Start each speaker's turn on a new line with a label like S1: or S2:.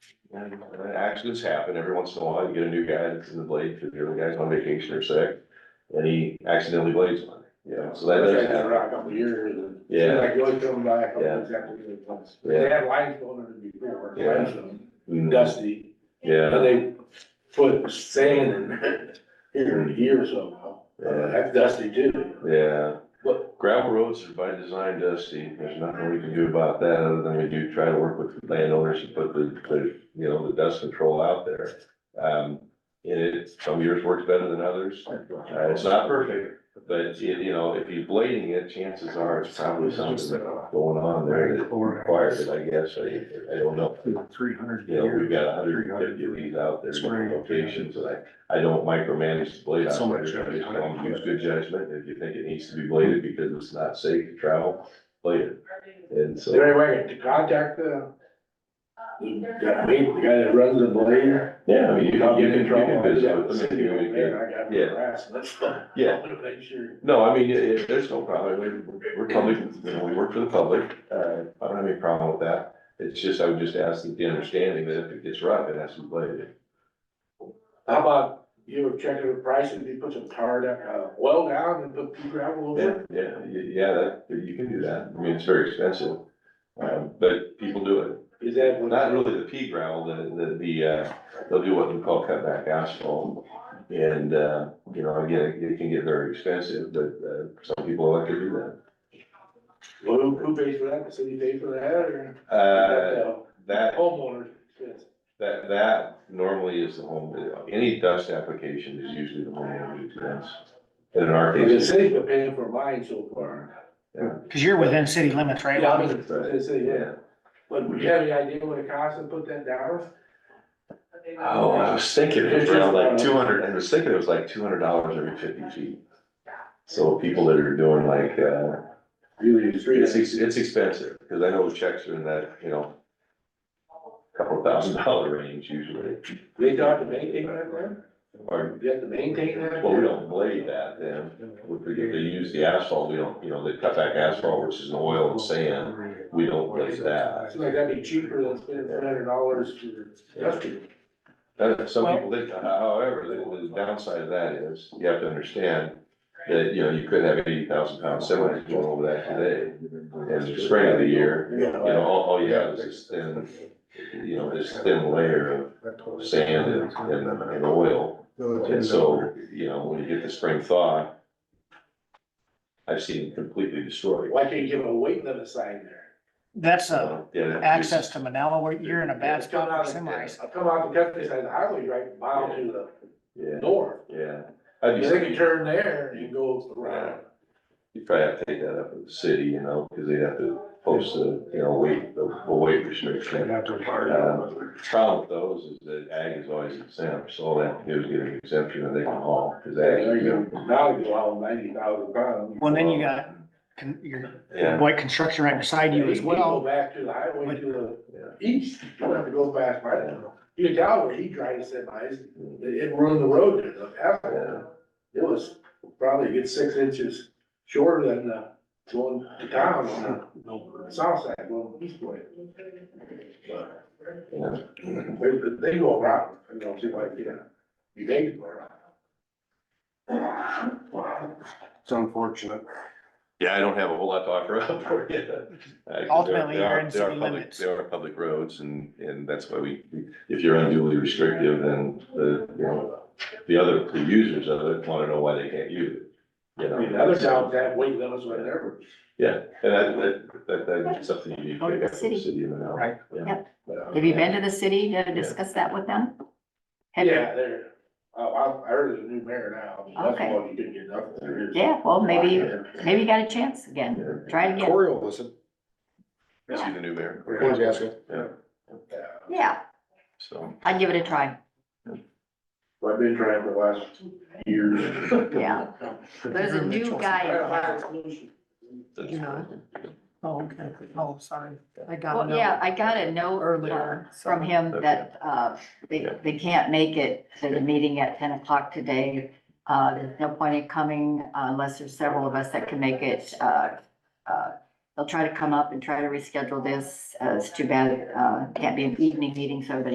S1: Uh, Accidents happen every once in a while. You get a new guy that's in the blade because the other guy's on vacation or sick. And he accidentally blades one, you know, so that does
S2: That's
S1: happen.
S2: around a couple of years and.
S1: Yeah.
S2: Like you always come by a couple
S1: Yeah.
S2: of examples of places.
S1: Yeah.
S2: They had lines going under before,
S1: Yeah.
S2: lines of
S1: Mm,
S2: dusty, and
S1: Yeah,
S2: they put sand in there here and here somehow. Uh,
S1: Yeah.
S2: That's dusty too.
S1: yeah.
S2: But-
S1: Gravel roads are by design dusty. There's nothing we can do about that other than we do try to work with landowners to put the, the, you know, the dust control out there. Um, and it, some years works better than others. Uh, it's not perfect, but you, you know, if you're blading it, chances are it's probably something that's going on there that requires it, I guess. I, I don't know.
S3: Three hundred
S1: You know, we've got hundred and fifty of these out there, different locations, and I, I don't micromanage the blade
S3: So much
S1: operator. I just want them to use good judgment. If you think it needs to be bladed because it's not safe to travel, blade it. And
S2: Is there
S1: so,
S2: any way to contact the, the main- the guy that runs the blade?
S1: yeah, I mean, you can, you can, you can visit with them and communicate. Yeah.
S2: Yeah.
S1: Yeah.
S2: Make sure.
S1: No, I mean, it, it, there's no problem. We- We're public, you know, we work for the public. Uh, I don't have any problem with that. It's just, I would just ask that the understanding that if it gets rough, it has to be bladed.
S2: How about you were checking the prices, you put some tar, down, uh, oil down and put pea gravel over
S1: Yeah,
S2: it?
S1: yeah, y- yeah, that, you can do that. I mean, it's very expensive. Um, but people do it.
S2: Is that what?
S1: Not really the pea gravel, the, the, the, uh, they'll do what we call cutback asphalt. And, uh, you know, again, it can get very expensive, but, uh, some people like to do that.
S2: Well, Who, who pays for that? The city pay for that or?
S1: Uh, that,
S2: Homeowners, yes.
S1: that, that normally is the home, any dust application is usually the homeowner's expense. And in our
S2: The
S1: case,
S2: city's been paying for mine so far.
S3: Cause you're within city limits, right?
S2: Yeah, I mean, the city, yeah.
S1: yeah.
S2: But do you have any idea what it costs to put that down?
S1: Oh, I was thinking it was around like two hundred, I was thinking it was like two hundred dollars every fifty feet. So people that are doing like, uh,
S2: Really, it's
S1: It's, ex- it's expensive, because I know checks are in that, you know, couple thousand dollar range usually.
S2: They don't have to maintain that there?
S1: Or,
S2: You have to maintain that?
S1: well, we don't blade that then, if they use the asphalt, we don't, you know, they cut back asphalt, which is an oil and sand, we don't blade that.
S2: Seems like that'd be cheaper than spending three hundred dollars for dusty.
S1: That, some people, they, however, the the downside of that is, you have to understand that, you know, you could have eighty thousand pound semis going over that today. And the spring of the year, you know, all, all you have is this thin, you know, this thin layer of sand and, and, and oil. And so, you know, when you get the spring thaw, I've seen it completely destroyed.
S2: Why can't you give a weight limit sign there?
S3: That's a
S1: Yeah, that-
S3: access to Manila where you're in a bad
S2: It's come
S3: spot
S2: out
S3: for
S2: of-
S3: semis.
S2: I come out the countryside, the highway right mile to the
S1: Yeah,
S2: north.
S1: yeah. I'd be,
S2: You think you turn there and you go around.
S1: you'd probably have to take that up with the city, you know, because they'd have to post a, you know, weight, a weight restriction. Um, Problem with those is that ag is always exempt, so all they have to do is get an exemption and they can haul, because
S2: There you
S1: ag.
S2: go. Now you go out ninety thousand pounds.
S3: Well, then you got con- your,
S1: Yeah.
S3: white construction right beside you as
S2: You go
S3: well.
S2: back to the highway to
S1: Yeah.
S2: the east, you don't have to go past my town. You can tell where he drives semis, it it ruined the road, there, the
S1: Yeah.
S2: asphalt. It was probably a good six inches shorter than the going to town on the south side, going east way. But
S1: Yeah.
S2: They, they go around, you know, see like, you know, you think go around.
S4: It's unfortunate.
S1: Yeah, I don't have a whole lot to offer up for you. Uh, 'cause
S3: Ultimately,
S1: they are-
S3: you're
S1: they
S3: in
S1: are
S3: city
S1: public-
S3: limits.
S1: They are public roads and, and that's why we, if you're unduly restrictive, then the, you know, the other, the users of it want to know why they can't use it. You
S2: I mean,
S1: know,
S2: other towns have weight limits when they're,
S1: yeah, and that, that, that, that's something you need to pick up from the city of Manal.
S3: Right.
S1: Yeah.
S5: Yep.
S2: uh,
S1: Yeah.
S5: Have you been to the city to discuss that with them? Have you-
S2: yeah, they're, I, I I heard there's a new mayor now. That's
S5: Okay.
S2: why you didn't get nothing. There is-
S5: Yeah, well, maybe, maybe you got a chance again.
S1: Yeah.
S5: Try it again.
S4: Corey will listen.
S1: I See the new mayor.
S4: Corey's asking.
S2: Yeah.
S5: Yeah,
S1: So,
S5: I'd give it a try.
S2: Well, I've been trying for the last year.
S5: Yeah. There's a new guy. in town.
S1: that's-
S3: You know. Oh, okay. Oh, sorry. I
S5: Well, yeah, I got a note
S3: Earlier,
S5: uh, from him
S1: so-
S5: that, uh, they,
S1: Yeah.
S5: they can't make it to the meeting at ten o'clock today. Uh, there's no point in coming uh, unless there's several of us that can make it. Uh, uh, they'll try to come up and try to reschedule this. Uh, it's too bad, uh, can't be an evening meeting, so everybody